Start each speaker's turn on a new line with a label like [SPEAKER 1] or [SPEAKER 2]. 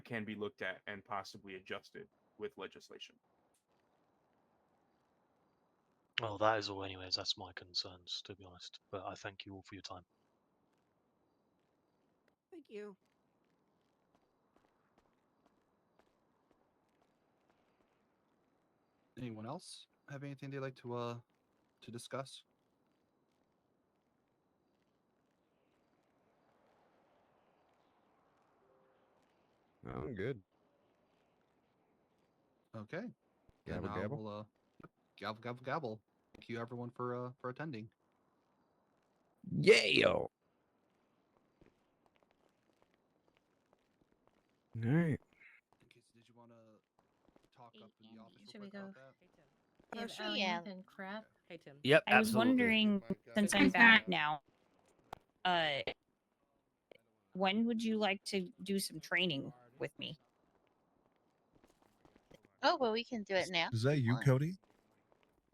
[SPEAKER 1] can be looked at and possibly adjusted with legislation.
[SPEAKER 2] Well, that is all, anyways. That's my concerns, to be honest. But I thank you all for your time.
[SPEAKER 3] Thank you.
[SPEAKER 4] Anyone else have anything they'd like to uh to discuss?
[SPEAKER 5] No, I'm good.
[SPEAKER 4] Okay.
[SPEAKER 5] Gabble,
[SPEAKER 4] then I
[SPEAKER 5] gabble.
[SPEAKER 4] will, uh, yep, gabble gabble gabble. Thank you everyone for uh for attending.
[SPEAKER 5] Yeah. All right.
[SPEAKER 4] In case did you wanna talk
[SPEAKER 6] Hey,
[SPEAKER 4] up in
[SPEAKER 6] Andy,
[SPEAKER 4] the office
[SPEAKER 7] um, should
[SPEAKER 4] real
[SPEAKER 7] we
[SPEAKER 4] quick about
[SPEAKER 7] go-
[SPEAKER 4] that?
[SPEAKER 7] Give
[SPEAKER 6] Oh, sure,
[SPEAKER 7] Ellie
[SPEAKER 6] yeah.
[SPEAKER 7] And crap.
[SPEAKER 3] Hey Tim.
[SPEAKER 8] Yep.
[SPEAKER 6] I was
[SPEAKER 8] absolutely.
[SPEAKER 6] wondering, since I'm back now, uh, when would you like to do some training with me?
[SPEAKER 9] Oh, well, we can do it now.
[SPEAKER 10] Is that you,
[SPEAKER 9] Fine.
[SPEAKER 10] Cody?